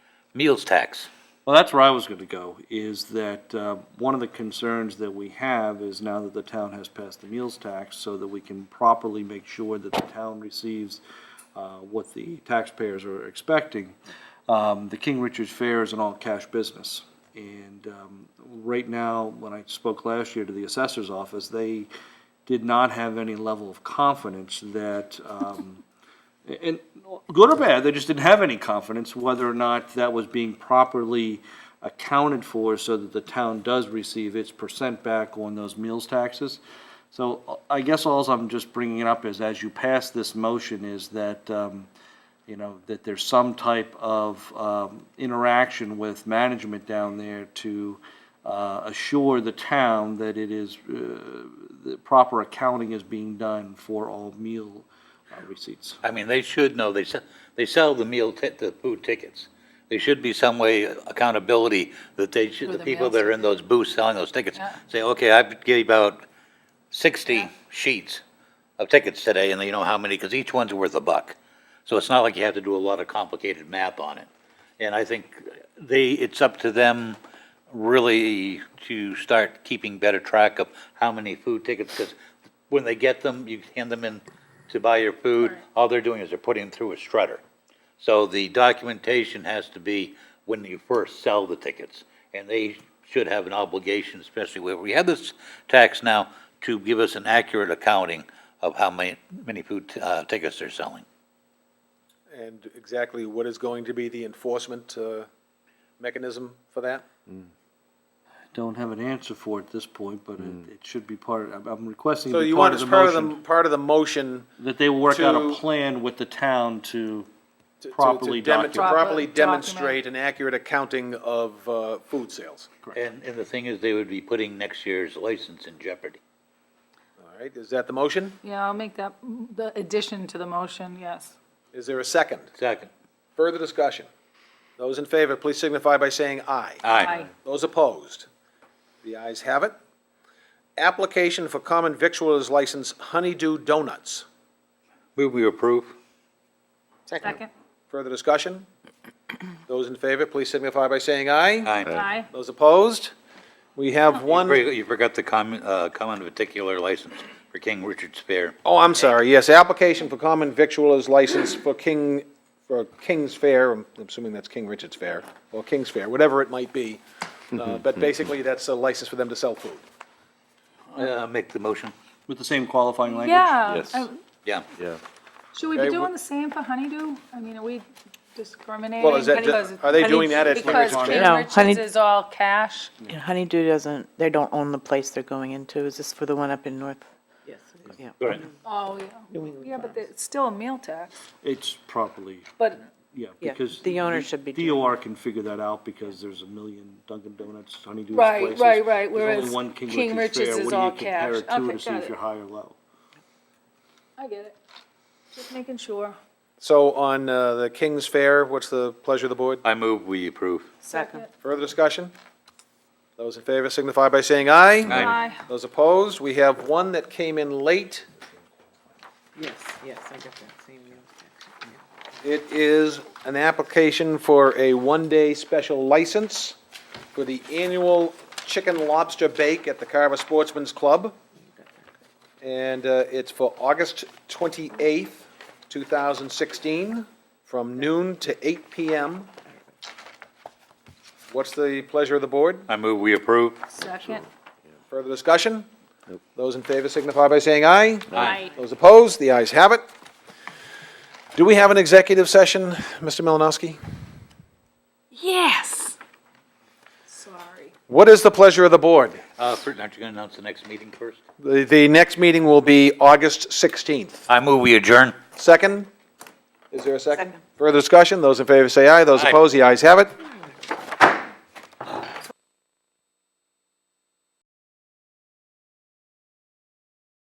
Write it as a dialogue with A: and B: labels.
A: meals tax.
B: Well, that's where I was gonna go, is that, uh, one of the concerns that we have is now that the town has passed the meals tax, so that we can properly make sure that the town receives, uh, what the taxpayers are expecting. Um, the King Richard's Fair is an all-cash business. And, um, right now, when I spoke last year to the assessor's office, they did not have any level of confidence that, um, and good or bad, they just didn't have any confidence whether or not that was being properly accounted for so that the town does receive its percent back on those meals taxes. So I guess alls I'm just bringing it up is as you pass this motion is that, um, you know, that there's some type of, um, interaction with management down there to, uh, assure the town that it is, uh, the proper accounting is being done for all meal uh, receipts.
A: I mean, they should know, they sell, they sell the meal, ti- the food tickets. There should be some way accountability that they should,
C: For
A: the
C: the
A: people
C: meals
A: that are in those booths selling those tickets,
C: Yeah.
A: say, okay, I gave out sixty sheets of tickets today, and you know how many, because each one's worth a buck. So it's not like you have to do a lot of complicated math on it. And I think they, it's up to them really to start keeping better track of how many food tickets, because when they get them, you hand them in to buy your food, all they're doing is they're putting them through a strutter. So the documentation has to be when you first sell the tickets. And they should have an obligation, especially where we have this tax now, to give us an accurate accounting of how many, many food, uh, tickets they're selling.
D: And exactly what is going to be the enforcement uh, mechanism for that?
B: Don't have an answer for it at this point, but it, it should be part, I'm, I'm requesting
D: So
B: it be
D: you
B: part
D: want,
B: of
D: as
B: the
D: part of the,
B: motion.
D: part of the motion
B: That they work out a
D: to-
B: plan with the town to
D: to- to-
B: properly
D: to dem- To
B: document.
C: Proper
D: properly
C: document.
D: demonstrate an accurate accounting of uh, food sales.
A: And, and the thing is, they would be putting next year's license in jeopardy.
D: All right, is that the motion?
C: Yeah, I'll make that, the addition to the motion, yes.
D: Is there a second?
A: Second.
D: Further discussion? Those in favor, please signify by saying aye.
A: Aye.
D: Those opposed? The ayes have it. Application for common victualers license Honeydew Donuts.
A: Move we approve?
C: Second?
D: Further discussion? Those in favor, please signify by saying aye.
C: Aye.
D: Those opposed? We have one,
A: You forgot the common, uh, common particular license for King Richard's Fair.
D: oh, I'm sorry, yes, application for common victualers license for King, for King's Fair, I'm assuming that's King Richard's Fair, or King's Fair, whatever it might be. Uh, But basically, that's a license for them to sell food.
A: Uh, make the motion.
B: With the same qualifying language?
C: Yeah.
E: Yes.
C: I-
A: Yeah.
E: Yeah.
C: Should we be
D: Okay,
C: doing
D: wh-
C: the same for honeydew? I mean, are we discriminating?
D: Well, is that
C: Because-
D: ju- are they doing that at King
C: Because
D: Richard's
C: King
F: Fair? No, honey-
C: Richard's is all cash.
F: And Honeydew doesn't, they don't own the place they're going into. Is this for the one up in North?
A: Right.
C: Oh, yeah. Yeah, but it's still a meal tax,
B: It's properly,
C: but
B: yeah,
F: Yeah,
B: because.
F: the owner should be doing
B: DOR can figure that out because there's a million Dunkin' Donuts, Honeydew
C: Right,
B: places.
C: right, right,
B: There's only
C: whereas
B: one
C: King
B: Fair.
C: Richard's is
B: What do you
C: all
B: compare
C: cash.
B: it to
C: Okay,
B: To see
C: got
B: if
C: it.
B: you're high or low.
C: I get it. Just making sure.
D: So on uh, the King's Fair, what's the pleasure of the board?
A: I move we approve.
F: Second.
D: Further discussion? Those in favor signify by saying aye.
C: Aye.
D: Those opposed? We have one that came in late.
F: Yes, yes, I got that same meal tax.
D: It is an application for a one-day special license for the annual Chicken Lobster Bake at the Carver Sportsman's Club. And uh, it's for August 28th, 2016, from noon to 8 PM. What's the pleasure of the board?
A: I move we approve.
C: Second.
D: Further discussion? Those in favor signify by saying aye.
C: Aye.
D: Those opposed, the ayes have it. Do we have an executive session, Mr. Malinowski?
C: Yes. Sorry.
D: What is the pleasure of the board?
A: Uh, first, aren't you gonna announce the next meeting first?
D: The, the next meeting will be August 16th.
A: I move we adjourn.
D: Second? Is there a second?
F: Second.
D: Further discussion? Those in favor say aye. Those
A: Aye.
D: opposed, the ayes have it.